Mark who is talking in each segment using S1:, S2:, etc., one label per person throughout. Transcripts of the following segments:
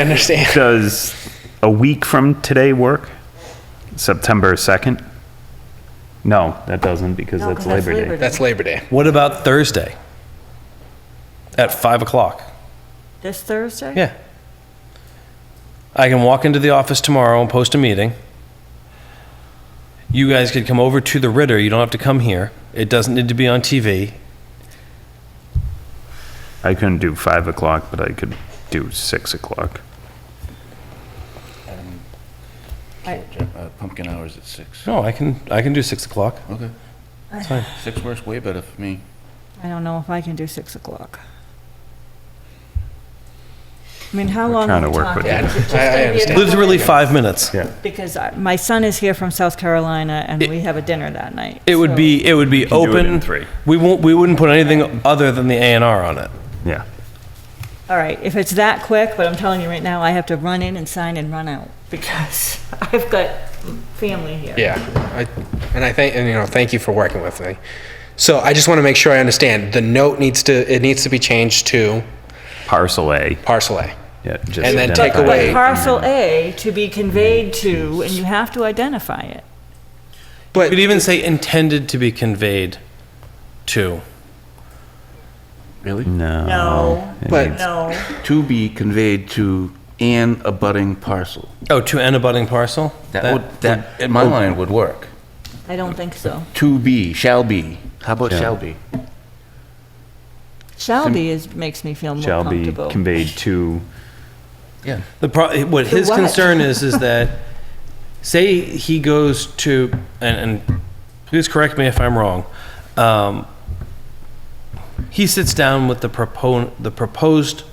S1: I understand.
S2: Does a week from today work? September 2nd? No, that doesn't because
S3: No,
S2: that's
S3: 'cause Oh, that's
S2: Labor
S3: Labor
S2: Day.
S3: Day.
S1: That's Labor Day.
S4: What about Thursday? At five o'clock?
S3: This Thursday?
S4: Yeah. I can walk into the office tomorrow and post a meeting. You guys could come over to the Ritter. You don't have to come here. It doesn't need to be on TV.
S2: I couldn't do 5 o'clock, but I could do 6 o'clock.
S5: Uh, Pumpkin hours at six.
S4: No, Oh, I can, I can do six o'clock.
S5: Okay.
S4: It's fine.
S5: Six works way better for me.
S3: I don't know if I can do 6 o'clock. I mean, how
S2: We're
S3: long
S2: trying
S3: are we
S2: to work with
S3: talking?
S2: you.
S3: Is it just
S1: I- I
S3: gonna be a
S1: understand.
S3: couple-
S4: Literally five minutes.
S2: Yeah.
S3: Because I- my son is here from South Carolina, and we have a dinner that night.
S4: It would
S3: so-
S4: be, it would be
S2: can do it
S4: open.
S2: in three.
S4: We won't, we wouldn't put anything other than the A and R on it.
S2: Yeah.
S3: All right, if it's that quick, but I'm telling you right now, I have to run in and sign and run out, because I've got family here.
S1: Yeah, I, and I thank, and you know, thank you for working with me. So I just want to make sure I understand. The note needs to, it needs to be changed to
S2: Parcel A.
S1: parcel A.
S2: Yeah, just
S1: And then take
S2: identify
S1: away-
S3: But
S2: it.
S3: parcel A to be conveyed to, and you have to identify it.
S1: But
S4: You could even say intended to be conveyed to.
S5: Really?
S2: No.
S3: No,
S1: But-
S3: no.
S5: To be conveyed to an abutting parcel.
S4: Oh, to an abutting parcel?
S5: That would, that, in my line, would work.
S3: I don't think so.
S5: To be, shall be. How about shall be?
S3: Shall be is, makes me feel more
S2: Shall be
S3: comfortable.
S2: conveyed to,
S5: Yeah.
S4: The pro, what his
S3: what?
S4: concern is, is that, say he goes to, and, and please correct me if I'm wrong. Um, he sits down with the propon, the proposed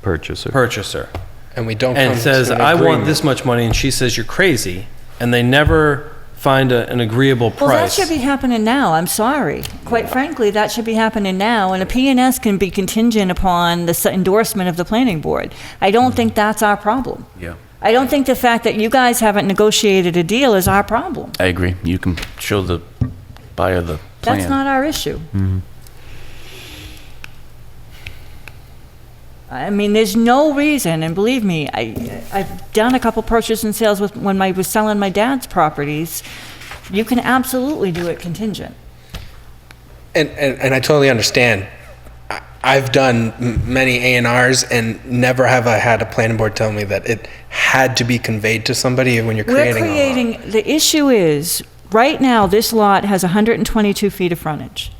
S2: purchaser.
S4: purchaser
S1: and we don't come
S4: and says,
S1: to an
S4: I want
S1: agreement.
S4: this much money, and she says, you're crazy, and they never find a, an agreeable price.
S3: Well, that should be happening now. I'm sorry. Quite frankly, that should be happening now, and a PNS can be contingent upon the s- endorsement of the planning board. I don't think that's our problem.
S5: Mm-hmm. Yeah.
S3: I don't think the fact that you guys haven't negotiated a deal is our problem.
S5: I agree. You can show the buyer the plan. Mm-hmm.
S3: That's not our issue. I mean, there's no reason, and believe me, I, I've done a couple purchase and sales with, when I was selling my dad's properties. You can absolutely do it contingent.
S1: And, and, and I totally understand. I- I've done m- many A and R's and never have I had a planning board tell me that it had to be conveyed to somebody when you're
S3: We're
S1: creating. a lot.
S3: creating, the issue is, right now, this lot has 122 feet of frontage.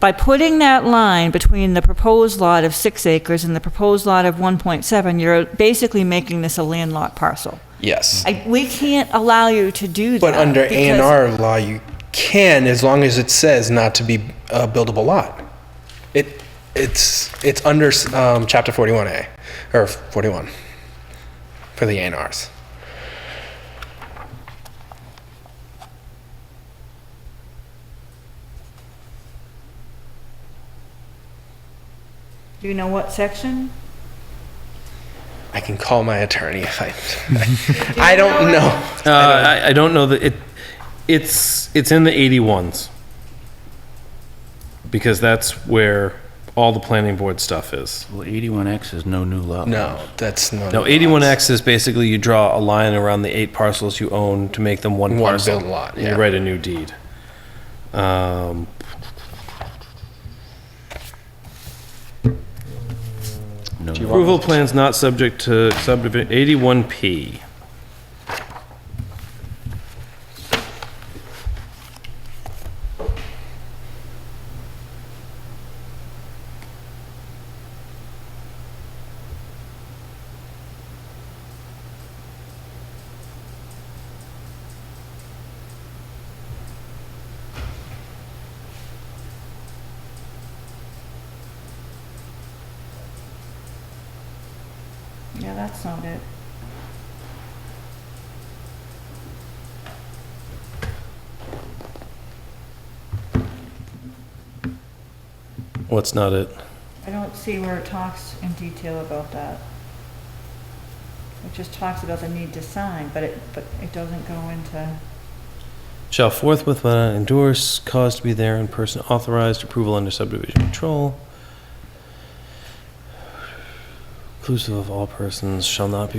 S3: By putting that line between the proposed lot of six acres and the proposed lot of 1.7, you're basically making this a landlocked parcel.
S1: Yes.
S3: I, we can't allow you to do that.
S1: But under A
S3: because-
S1: and R law, you can, as long as it says not to be a buildable lot. It, it's, it's under um, chapter 41A, or 41, for the A and Rs.
S3: Do you know what section?
S1: I can call my attorney if I, I don't know.
S4: Uh, I, I don't know that it, it's, it's in the 81s. Because that's where all the planning board stuff is.
S5: Well, 81X is no new lot.
S1: No, that's not.
S4: No, 81X is basically you draw a line around the eight parcels you own to make them one
S1: One
S4: parcel.
S1: built lot,
S4: And
S1: yeah.
S4: You write a new deed. Um,
S5: No.
S4: Approval plans not subject to subdivision, 81P.
S3: Yeah, that's not it.
S4: What's not it?
S3: I don't see where it talks in detail about that. It just talks about the need to sign, but it, but it doesn't go into.
S4: Shall forthwith uh, endorse, cause to be there in person, authorized approval under subdivision control. inclusive of all persons, shall not be